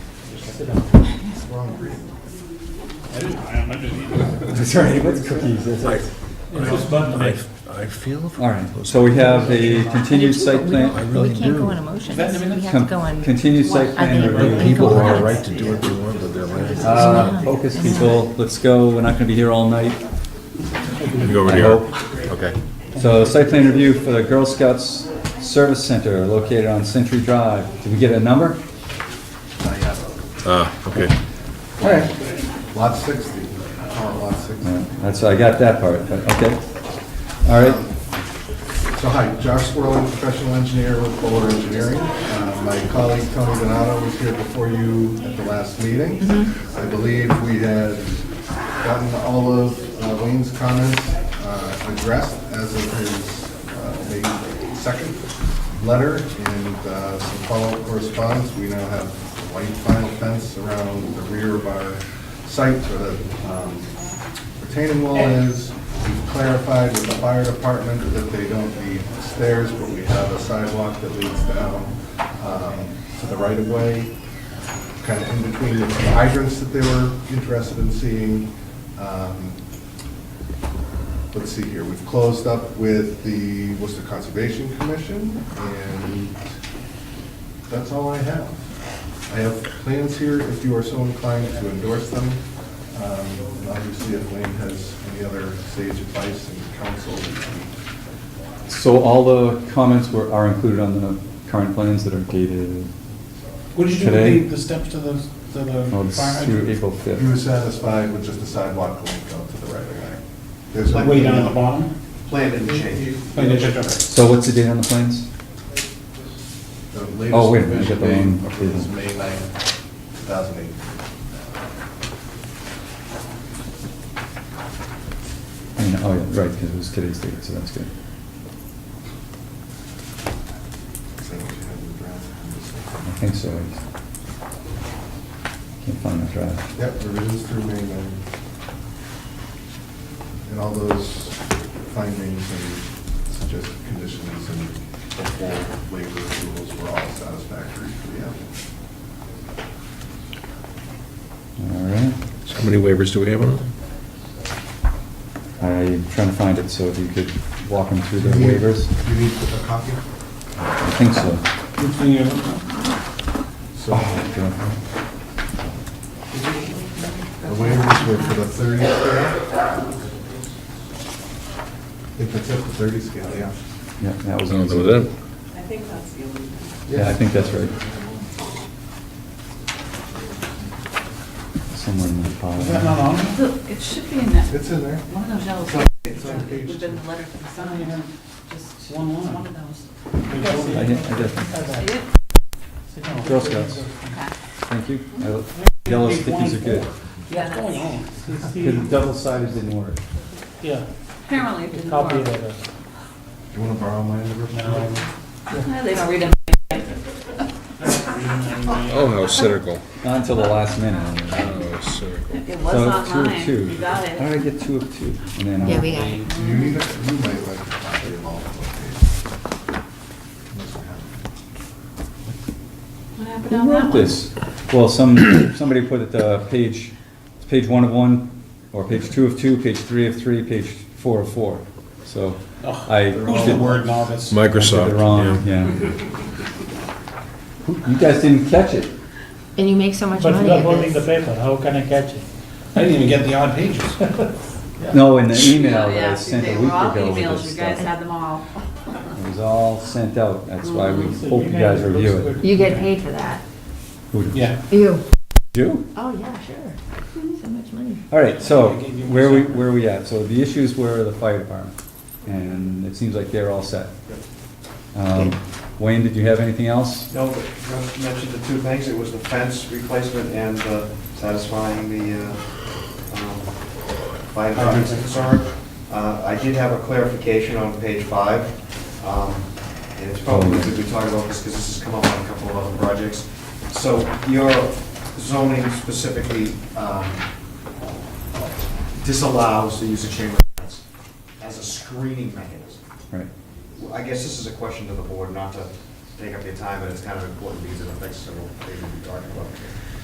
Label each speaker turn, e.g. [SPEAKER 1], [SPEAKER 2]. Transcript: [SPEAKER 1] Sorry, what's cookies? That's it.
[SPEAKER 2] I,
[SPEAKER 3] Button,
[SPEAKER 2] I feel for
[SPEAKER 1] All right, so we have a continued site
[SPEAKER 2] I
[SPEAKER 1] plan,
[SPEAKER 4] We
[SPEAKER 2] really
[SPEAKER 4] can't
[SPEAKER 2] do.
[SPEAKER 4] go on emotions,
[SPEAKER 3] That- I mean,
[SPEAKER 4] we have to
[SPEAKER 1] com-
[SPEAKER 4] go on.
[SPEAKER 1] continued site
[SPEAKER 4] Are
[SPEAKER 1] plan
[SPEAKER 4] they-
[SPEAKER 1] review.
[SPEAKER 4] are they
[SPEAKER 2] People
[SPEAKER 4] going
[SPEAKER 2] have
[SPEAKER 4] on?
[SPEAKER 2] a right to do what they want with their land.
[SPEAKER 1] Uh, Focus, people, let's go, we're not gonna be here all night,
[SPEAKER 2] Go over
[SPEAKER 1] I hope.
[SPEAKER 2] Okay.
[SPEAKER 1] So site plan review for the Girl Scouts Service Center located on Century Drive. Did we get a number?
[SPEAKER 2] Ah, okay.
[SPEAKER 1] All right.
[SPEAKER 5] Lot 60, or Oh, lot 60.
[SPEAKER 1] That's, I got that part, but, okay. All right,
[SPEAKER 5] So hi, Josh Swirling, professional engineer with Fuller Engineering. Uh, My colleague Tony Donato was here before you at the last meeting. I believe we had gotten all of uh, Wayne's comments uh, addressed as of his uh, May second letter and uh, some follow-up correspondence. We now have white vinyl fence around the rear of our site where the um, retaining wall is. We've clarified with the fire department that they don't need stairs, but we have a sidewalk that leads down um, to the right-of-way, kind of in between the hydrants that they were interested in seeing. Um, Let's see here, we've closed up with the Worcester Conservation Commission, and that's all I have. I have plans here if you are so inclined to endorse them. Um, and Obviously, if Wayne has any other sage advice and counsel,
[SPEAKER 1] so all the comments were, are included on the current plans that are dated,
[SPEAKER 3] What did you do
[SPEAKER 1] Today?
[SPEAKER 3] with the, the steps to the, to
[SPEAKER 1] well,
[SPEAKER 3] the fire
[SPEAKER 1] it's oh, through April
[SPEAKER 3] hydrant?
[SPEAKER 5] he was
[SPEAKER 1] 5th.
[SPEAKER 5] satisfied with just a sidewalk going out to the right of way. There's
[SPEAKER 3] Like way down at the bottom?
[SPEAKER 6] Plan and change.
[SPEAKER 3] Like they checked over.
[SPEAKER 1] So what's the date on the plans?
[SPEAKER 5] The latest
[SPEAKER 1] Oh, wait a minute, I got the
[SPEAKER 5] revision
[SPEAKER 1] wrong
[SPEAKER 5] being approved is May 9, 2008.
[SPEAKER 1] And- Oh, yeah, right, because it was today's date, so that's good.
[SPEAKER 5] Is that what you had in the draft?
[SPEAKER 1] I think so. I Can't find the drive.
[SPEAKER 5] Yep, revisions through May 9. And all those findings and suggested conditions and the full waiver approvals were all satisfactory for the applicant.
[SPEAKER 1] All right,
[SPEAKER 2] So how many waivers do we have on them?
[SPEAKER 1] I'm trying to find it, so if you could walk them through the waivers.
[SPEAKER 5] You need a copy?
[SPEAKER 1] I think so.
[SPEAKER 3] Which thing you-
[SPEAKER 5] So
[SPEAKER 1] Oh, God.
[SPEAKER 5] the waivers were for the 30 scale? If it's at the 30 scale, yeah.
[SPEAKER 1] Yeah, that was.
[SPEAKER 2] Oh,
[SPEAKER 1] easy.
[SPEAKER 2] those are them.
[SPEAKER 7] I think that's the only.
[SPEAKER 1] Yeah, I think that's right. Somewhere in the file.
[SPEAKER 3] Is that not on?
[SPEAKER 7] Look, it should be in that,
[SPEAKER 5] It's in there.
[SPEAKER 7] one of those yellow
[SPEAKER 5] It's on- it's on page
[SPEAKER 7] pages, would have been the letter from someone, just
[SPEAKER 3] One line.
[SPEAKER 7] one of those.
[SPEAKER 1] I did- I did.
[SPEAKER 7] See it?
[SPEAKER 1] Girl Scouts,
[SPEAKER 7] Okay.
[SPEAKER 1] thank you. I- Yellow stickies are good.
[SPEAKER 7] Yeah,
[SPEAKER 3] What's going
[SPEAKER 7] that's-
[SPEAKER 3] on? It's
[SPEAKER 1] Because
[SPEAKER 3] the-
[SPEAKER 1] double-sided didn't work.
[SPEAKER 3] Yeah,
[SPEAKER 7] apparently it didn't
[SPEAKER 3] copy
[SPEAKER 7] work.
[SPEAKER 3] that.
[SPEAKER 5] Do you want to borrow mine? Rick?
[SPEAKER 7] Yeah, They don't read them.
[SPEAKER 2] Oh, how cynical.
[SPEAKER 1] Not until the last minute.
[SPEAKER 2] Oh, cynical.
[SPEAKER 7] It was
[SPEAKER 1] So it's two
[SPEAKER 7] online.
[SPEAKER 1] of two.
[SPEAKER 7] You got it.
[SPEAKER 1] How do I get two of two? And then uh, I'll-
[SPEAKER 4] Yeah, we got it.
[SPEAKER 5] Do you need a, you might like a copy of all of them.
[SPEAKER 7] What happened on
[SPEAKER 1] Who
[SPEAKER 7] that
[SPEAKER 1] wrote
[SPEAKER 7] one?
[SPEAKER 1] this? Well, some, somebody put it, uh, page, it's page one of one, or page two of two, page three of three, page four of four. So
[SPEAKER 3] Ugh,
[SPEAKER 1] I.
[SPEAKER 3] They're all word novice.
[SPEAKER 1] I did
[SPEAKER 2] Microsoft.
[SPEAKER 1] it wrong,
[SPEAKER 2] yeah.
[SPEAKER 1] yeah. Who- You guys didn't catch it.
[SPEAKER 4] And you make so much
[SPEAKER 8] But
[SPEAKER 4] money
[SPEAKER 8] without
[SPEAKER 4] at
[SPEAKER 8] holding the
[SPEAKER 4] this.
[SPEAKER 8] paper, how can I catch it?
[SPEAKER 3] I didn't even get the odd pages.
[SPEAKER 1] No, in the email that
[SPEAKER 7] Yeah,
[SPEAKER 1] I sent
[SPEAKER 7] they
[SPEAKER 1] a
[SPEAKER 7] were
[SPEAKER 1] week
[SPEAKER 7] all
[SPEAKER 1] ago with
[SPEAKER 7] emails.
[SPEAKER 1] this
[SPEAKER 7] You guys
[SPEAKER 1] stuff.
[SPEAKER 7] had them all.
[SPEAKER 1] It was all sent out, that's why we
[SPEAKER 7] Mm-hmm.
[SPEAKER 1] hope you guys review it.
[SPEAKER 4] You get paid for that.
[SPEAKER 1] Who did
[SPEAKER 3] Yeah.
[SPEAKER 4] You.
[SPEAKER 1] you?
[SPEAKER 4] Oh, yeah, sure. So much money.
[SPEAKER 1] All right, so where we, where we at? So the issues were the fire department, and it seems like they're all set. Um, Wayne, did you have anything else?
[SPEAKER 6] No, but Russ mentioned the two things, it was the fence replacement and uh, satisfying the uh, um, fire department's concern. Uh, I did have a clarification on page five, um, and it's probably good we talk about this because this has come up on a couple of other projects. So your zoning specifically um, disallows the use of chain link fence as a screening mechanism.
[SPEAKER 1] Right.
[SPEAKER 6] Well, I guess this is a question to the board, not to take up your time, but it's kind of important because it affects several things we're talking about.